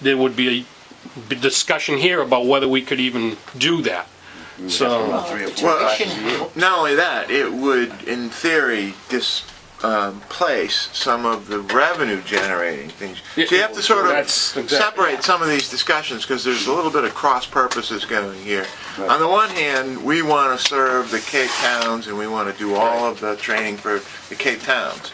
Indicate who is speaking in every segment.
Speaker 1: there would be a discussion here about whether we could even do that. So,
Speaker 2: Well, three or four
Speaker 3: Well,
Speaker 2: times a
Speaker 3: I-
Speaker 2: year.
Speaker 3: Not only that, it would, in theory, displace some of the revenue generating things. So you have to sort of
Speaker 1: That's exactly-
Speaker 3: separate some of these discussions because there's a little bit of cross purposes going here. On the one hand, we want to serve the Cape Towns and we want to do all of the training for the Cape Towns.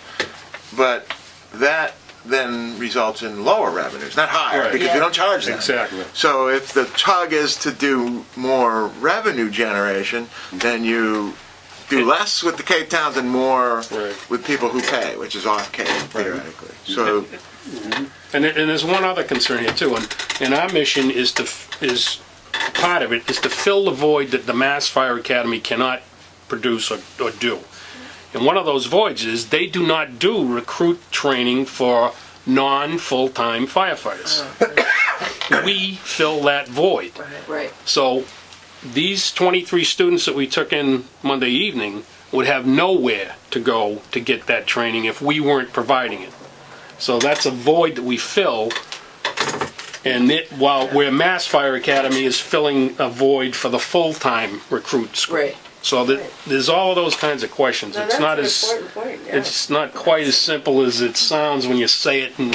Speaker 3: But that then results in lower revenues, not higher,
Speaker 1: Right.
Speaker 3: because we
Speaker 2: Yeah.
Speaker 3: don't charge that.
Speaker 1: exactly.
Speaker 3: So if the tug is to do more revenue generation, then you do less with the Cape Towns and more
Speaker 1: Right.
Speaker 3: with people who pay, which is off Cape theoretically. So,
Speaker 1: And, there- and there's one other concern here too, and, and our mission is to, f- is, part of it is to fill the void that the Mass Fire Academy cannot produce or, or do. And one of those voids is they do not do recruit training for non-full-time firefighters. We fill that void.
Speaker 2: Right.
Speaker 1: So these 23 students that we took in Monday evening would have nowhere to go to get that training if we weren't providing it. So that's a void that we fill. And it, while where Mass Fire Academy is filling a void for the full-time recruits.
Speaker 2: Right.
Speaker 1: So that, there's all of those kinds of questions.
Speaker 4: No,
Speaker 1: It's
Speaker 4: that's
Speaker 1: not
Speaker 4: an
Speaker 1: as,
Speaker 4: important point, yeah.
Speaker 1: it's not quite as simple as it sounds when you say it and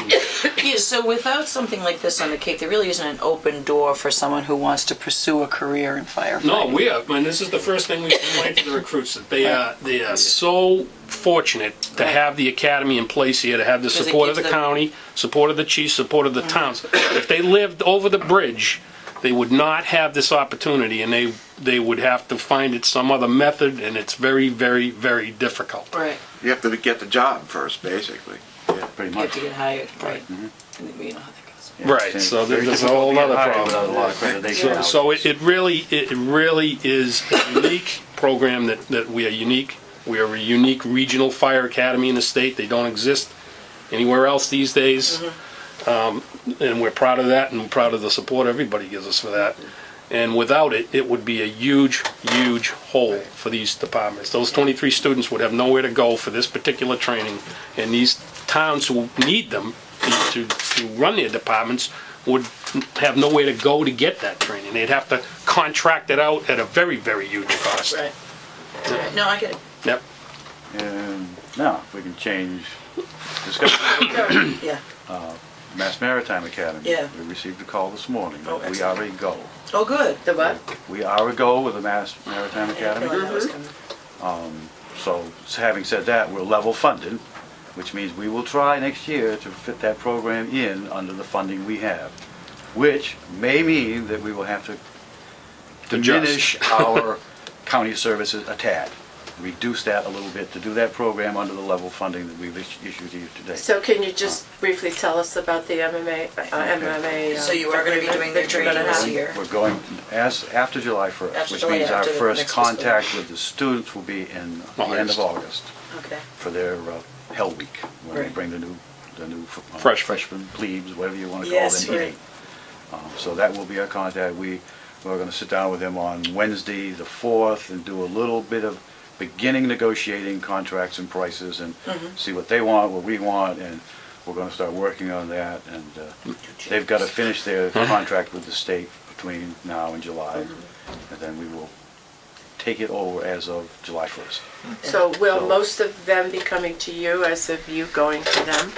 Speaker 2: Yeah, so without something like this on the Cape, there really isn't an open door for someone who wants to pursue a career in firefighting.
Speaker 1: No, we are, and this is the first thing we complained to the recruits, that they are, they are so fortunate to have the academy in place here, to have the
Speaker 2: it
Speaker 1: support of the
Speaker 2: gives them- Mm-hmm.
Speaker 1: county, support of the chiefs, support of the towns. If they lived over the bridge, they would not have this opportunity, and they, they would have to find it some other method, and it's very, very, very difficult.
Speaker 2: Right.
Speaker 3: you have to get the job first, basically.
Speaker 2: You have
Speaker 4: pretty much.
Speaker 2: to get hired. Right.
Speaker 4: mm-hmm.
Speaker 2: And we know how that goes.
Speaker 1: Right, so there- there's a whole other problem.
Speaker 4: Without a lot of accreditation.
Speaker 1: So- So it, it really, it really is a unique program that, that we are unique. We are a unique regional fire academy in the state. They don't exist anywhere else these days. Um, and we're proud of that and we're proud of the support everybody gives us for that. And without it, it would be a huge, huge hole for these departments. Those 23 students would have nowhere to go for this particular training, and these towns who need them to, to run their departments would have nowhere to go to get that training. They'd have to contract it out at a very, very huge cost.
Speaker 2: Right. Right. No, I get it.
Speaker 1: Yep.
Speaker 4: Um, No, we can change discussion.
Speaker 2: Yeah.
Speaker 4: Mass Maritime Academy.
Speaker 2: Yeah.
Speaker 4: We received a call this morning.
Speaker 2: Oh,
Speaker 4: that We
Speaker 2: excellent.
Speaker 4: are a go.
Speaker 2: Oh, good.
Speaker 4: The what? We are a go with the Mass Maritime
Speaker 2: Yeah, I feel
Speaker 4: Academy.
Speaker 2: like that was coming.
Speaker 4: So, s- having said that, we're level funded, which means we will try next year to fit that program in under the funding we have, which may mean that we will have to diminish our county services a tad, reduce that a little bit to do that program under the level funding that we've is- issued to you today.
Speaker 5: So can you just briefly tell us about the MMA, uh, MMA? uh,
Speaker 2: So you are gonna be doing their
Speaker 5: that you're gonna
Speaker 2: training this
Speaker 5: have?
Speaker 2: year?
Speaker 4: We're going, as, after July
Speaker 2: After
Speaker 4: 1st, which
Speaker 2: July,
Speaker 4: means our
Speaker 2: after the
Speaker 4: first
Speaker 2: next fiscal year.
Speaker 4: contact with the students will be in the end
Speaker 1: August.
Speaker 4: of August.
Speaker 2: Okay.
Speaker 4: for their uh, Hell Week, when we
Speaker 2: Right.
Speaker 4: bring the new, the new f- uh,
Speaker 1: Fresh.
Speaker 4: freshmen, plebes, whatever you want to call
Speaker 2: Yes,
Speaker 4: them,
Speaker 2: right.
Speaker 4: in. Um, So that will be our contact. We, we're going to sit down with them on Wednesday, the 4th, and do a little bit of beginning negotiating contracts and prices and
Speaker 2: Mm-hmm.
Speaker 4: see what they want, what we want, and we're going to start working on that. And uh,
Speaker 2: Mm-hmm.
Speaker 4: they've got to finish their contract with the state between now and July,
Speaker 2: Mm-hmm.
Speaker 4: and then we will take it over as of July 1st.
Speaker 5: So
Speaker 4: So-
Speaker 5: will most of them be coming to you as of you going to them?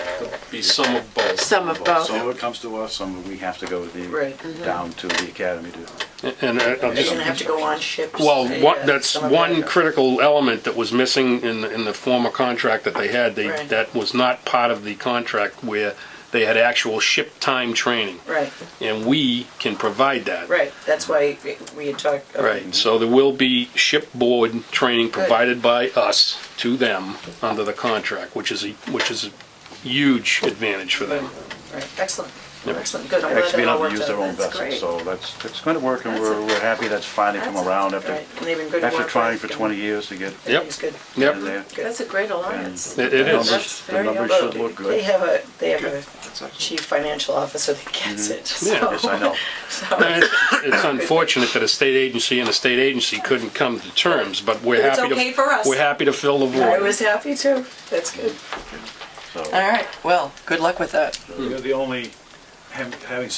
Speaker 1: Be some of both.
Speaker 5: Some of both?
Speaker 4: Some of it comes to us, some of it we have to go with
Speaker 2: Right. mm-hmm.
Speaker 4: the, down to the academy to.
Speaker 1: And I- I'll
Speaker 2: They're
Speaker 1: just
Speaker 2: gonna have to go on ships.
Speaker 1: Well,
Speaker 2: uh,
Speaker 1: one, that's
Speaker 2: some of
Speaker 1: one
Speaker 2: that.
Speaker 1: critical element that was missing in, the- in the former contract that they had. They,
Speaker 2: Right.
Speaker 1: that was not part of the contract where they had actual ship time training.
Speaker 2: Right,
Speaker 1: And we can provide that.
Speaker 2: right. That's why we- we had talked. okay.
Speaker 1: Right, so there will be shipboard training provided by us to them under the contract, which is a, which is a huge advantage for them.
Speaker 2: Right, excellent. Excellent, good. I'm glad
Speaker 4: Actually,
Speaker 2: that
Speaker 4: being
Speaker 2: all
Speaker 4: able to
Speaker 2: worked
Speaker 4: use their
Speaker 2: out.
Speaker 4: own
Speaker 2: That's
Speaker 4: vessel,
Speaker 2: great.
Speaker 4: so that's, it's gonna work and
Speaker 2: That's
Speaker 4: we're,
Speaker 2: it.
Speaker 4: we're happy that's finally come
Speaker 2: That's
Speaker 4: around
Speaker 2: it.
Speaker 4: after,
Speaker 2: Right. And they've been good
Speaker 4: after
Speaker 2: work
Speaker 4: trying
Speaker 2: with
Speaker 4: for
Speaker 2: them.
Speaker 4: twenty years to get in
Speaker 1: Yep.
Speaker 2: It's good.
Speaker 1: Yep,
Speaker 4: there.
Speaker 5: That's a great alliance.
Speaker 1: It- it
Speaker 4: The
Speaker 1: is.
Speaker 4: numbers- The
Speaker 5: Very
Speaker 4: numbers
Speaker 2: Well,
Speaker 4: should look
Speaker 2: They
Speaker 4: good.
Speaker 2: have a, they have a
Speaker 3: That's excellent.
Speaker 2: chief financial officer that gets it, so.
Speaker 1: Yeah.
Speaker 4: Yes, Mm-hmm. I know.
Speaker 2: so-
Speaker 1: it's unfortunate that a state agency and a state agency couldn't come to terms, but we're
Speaker 2: It's
Speaker 1: happy to.
Speaker 2: okay for us.
Speaker 1: We're happy to fill the
Speaker 2: I
Speaker 1: void.
Speaker 2: was happy too. That's good.
Speaker 4: So,
Speaker 2: All right, well, good luck with that.
Speaker 4: you're the only, having